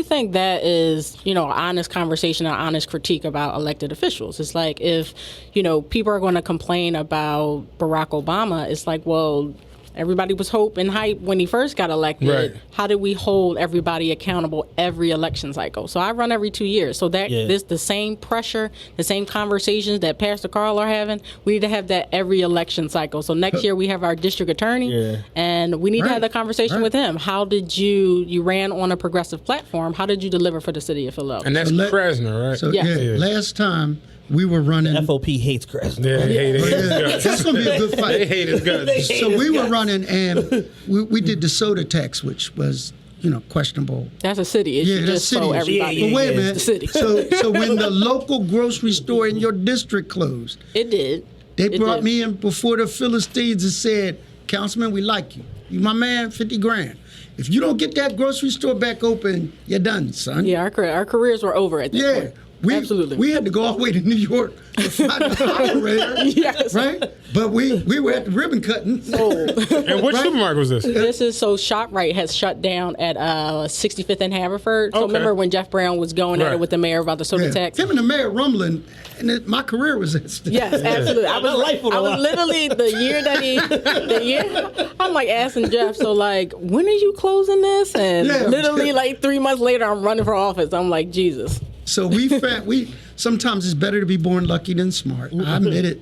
I think that is, you know, honest conversation and honest critique about elected officials. It's like if, you know, people are going to complain about Barack Obama, it's like, well, everybody was hope and hype when he first got elected. Right. How do we hold everybody accountable every election cycle? So I run every two years. So that Yeah. this the same pressure, the same conversations that Pastor Carl are having. We need to have that every election cycle. So next year we have our district attorney, Yeah. and we need to Right. have the conversation Right. with him. How did you you ran on a progressive platform? How did you deliver for the city of Philadelphia? And that's So let- Krasner, right? So Yeah. Uh, yeah, Yeah. last time we were running. FOP hates Krasner. yeah, they hate his Yeah, guts. that's gonna be a good They fight. hate his guts. hate So his we were guts. running, and we, we did the soda tax, which was you know questionable. that's a city issue. Yeah, that's just city. so issue. everybody. Yeah, but wait a yeah. minute. The city. So so when the local grocery store in your district closed, It did. they It brought did. me in before the Philistines and said, "Councilman, we like you. You my man, fifty grand. If you don't get that grocery store back open, you're done, son." Yeah, our, car- our careers were over at that Yeah. point. We, Absolutely. We uh, had to go all the way to New York to find an operator, Yes. right? But we, we were at the ribbon cutting. Oh. And which supermarket was this? This is so ShopRite has shut down at uh, 65th and Haverford. So Okay. remember when Jeff Brown was going at Right. it with the mayor about the soda Yeah. tax? Him and the mayor rumbling, and it, my career was at stake. Yes, absolutely. I My was, life on the I was line. literally the year that he, the year I'm like asking Jeff, so like, when are you closing this? And Yeah. literally like three months later, I'm running for office. I'm like, Jesus. So we found, we sometimes it's better to be born lucky than smart. I admit it.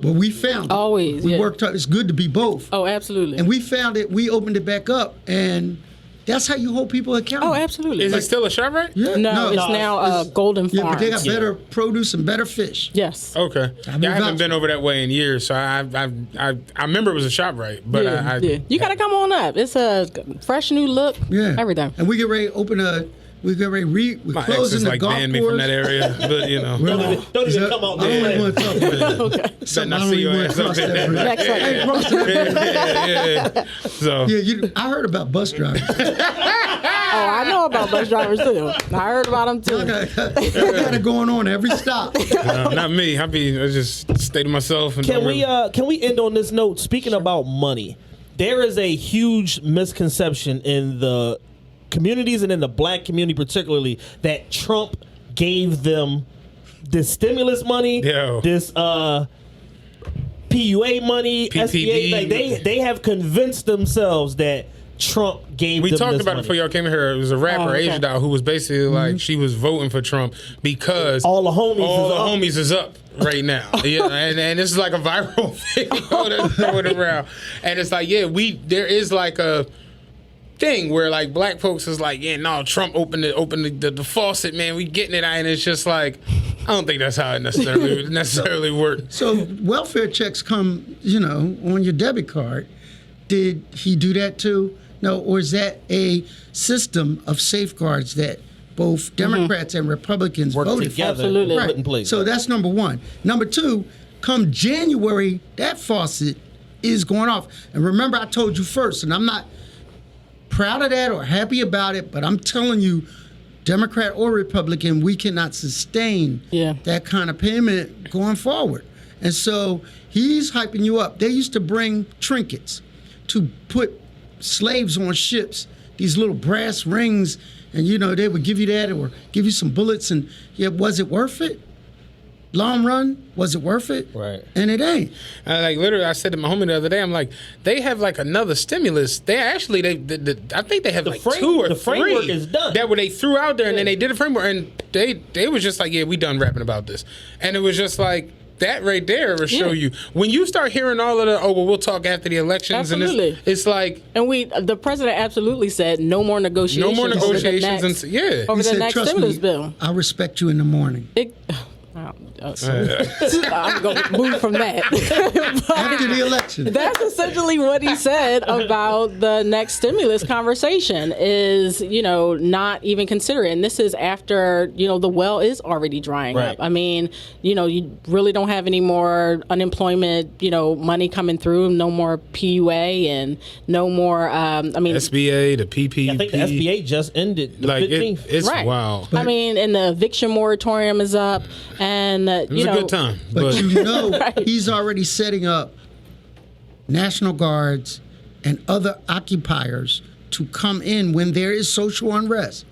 But we found it. Mm-hmm. Always, We yeah. worked hard. It's good to be both. Oh, absolutely. And we found it. We opened it back up, and that's how you hold people accountable. oh, absolutely. Is it still a shop, right? Yeah, no, it's no, now uh, Golden Yeah, Farm. but they got better produce and better fish. yes. Okay. mean, Yeah, I haven't that's- been over that way in years, so I I I, I remember it was a shop, right? But yeah, I, I yeah. You got to come on up. It's a fresh new look. Yeah. Everything. Oh, And we get ready to open a, we get ready to re, we're my ex closing is the like golf banned me from course. that area, but you know. Don't even, don't Is even that- come out I don't there. even want to talk about it. Okay. Something I I don't see even your want ass to up cross there. that bridge. Next I ain't one. crossing that bridge. yeah, yeah, yeah. So Yeah, you, I heard about bus drivers. Oh, I know about bus drivers too. I heard about them too. I got, I got it going on every stop. no, uh, not me. I be I just stay to myself and Can don't we really- uh can we end on this note? Speaking about money, there is a huge misconception in the communities and in the black community particularly that Trump gave them this stimulus money, Yo. this uh PUA money, PPP. SBA. Like they they have convinced themselves that Trump gave we them talked this about it money. Mm-hmm. before y'all came here. It was a rapper, Oh, okay. Asia Doll, who was basically like she was voting for Trump because All the homies all is the up. homies is up right now. yeah, and, and this is like a viral video that's going around. And it's like, yeah, we there is like a thing where like black folks is like, yeah, no, Trump opened the opened the, the, the faucet, man. We getting it, and it's just like, I don't think that's how it necessarily necessarily worked. So welfare checks come, you know, on your debit card. Did he do that too? No, or is that a system of safeguards that Mm-hmm. both Democrats and Republicans Work voted for? together, Absolutely. put in place. So that's number one. Number two, come January, that faucet is going off. And remember, I told you first, and I'm not proud of that or happy about it, but I'm telling you, Democrat or Republican, we cannot sustain Yeah. that kind of payment going forward. And so he's hyping you up. They used to bring trinkets to put slaves on ships, these little brass rings, and you know, they would give you that or give you some bullets and yeah, was it worth it? Long run, was it worth it? Right. And it ain't. I, like literally, I said to my homie the other day, I'm like, they have like another stimulus. They actually, they, the, the, I think they have like frame- two or the three framework is done. that where they threw out there, and then they did a framework, and they they was just like, yeah, we done rapping about this, and it was just like. That right there will show you when you start hearing all of the oh well we'll talk after the elections and Absolutely. it's, it's like And we, the president absolutely said no more no negotiations. more over the negotiations next- and yeah over He the said, next "Trust stimulus me, bill. I'll respect you in the morning. It, wow, uh, so- I'm going to move from that. After the election. That's essentially what he said about the next stimulus conversation is, you know, not even consider it. And this is after, you know, the well is already drying Right. up. I mean, you know, you really don't have any more unemployment, you know, money coming through, no more PUA and no more, um, I mean, SBA the I PPP think the SBA just ended the like it- 15th. it's right. wild I mean, and the eviction moratorium is up. And, uh, it was you a know, good time but, But you know, Right. he's already setting up National Guards and other occupiers to come in when there is social unrest.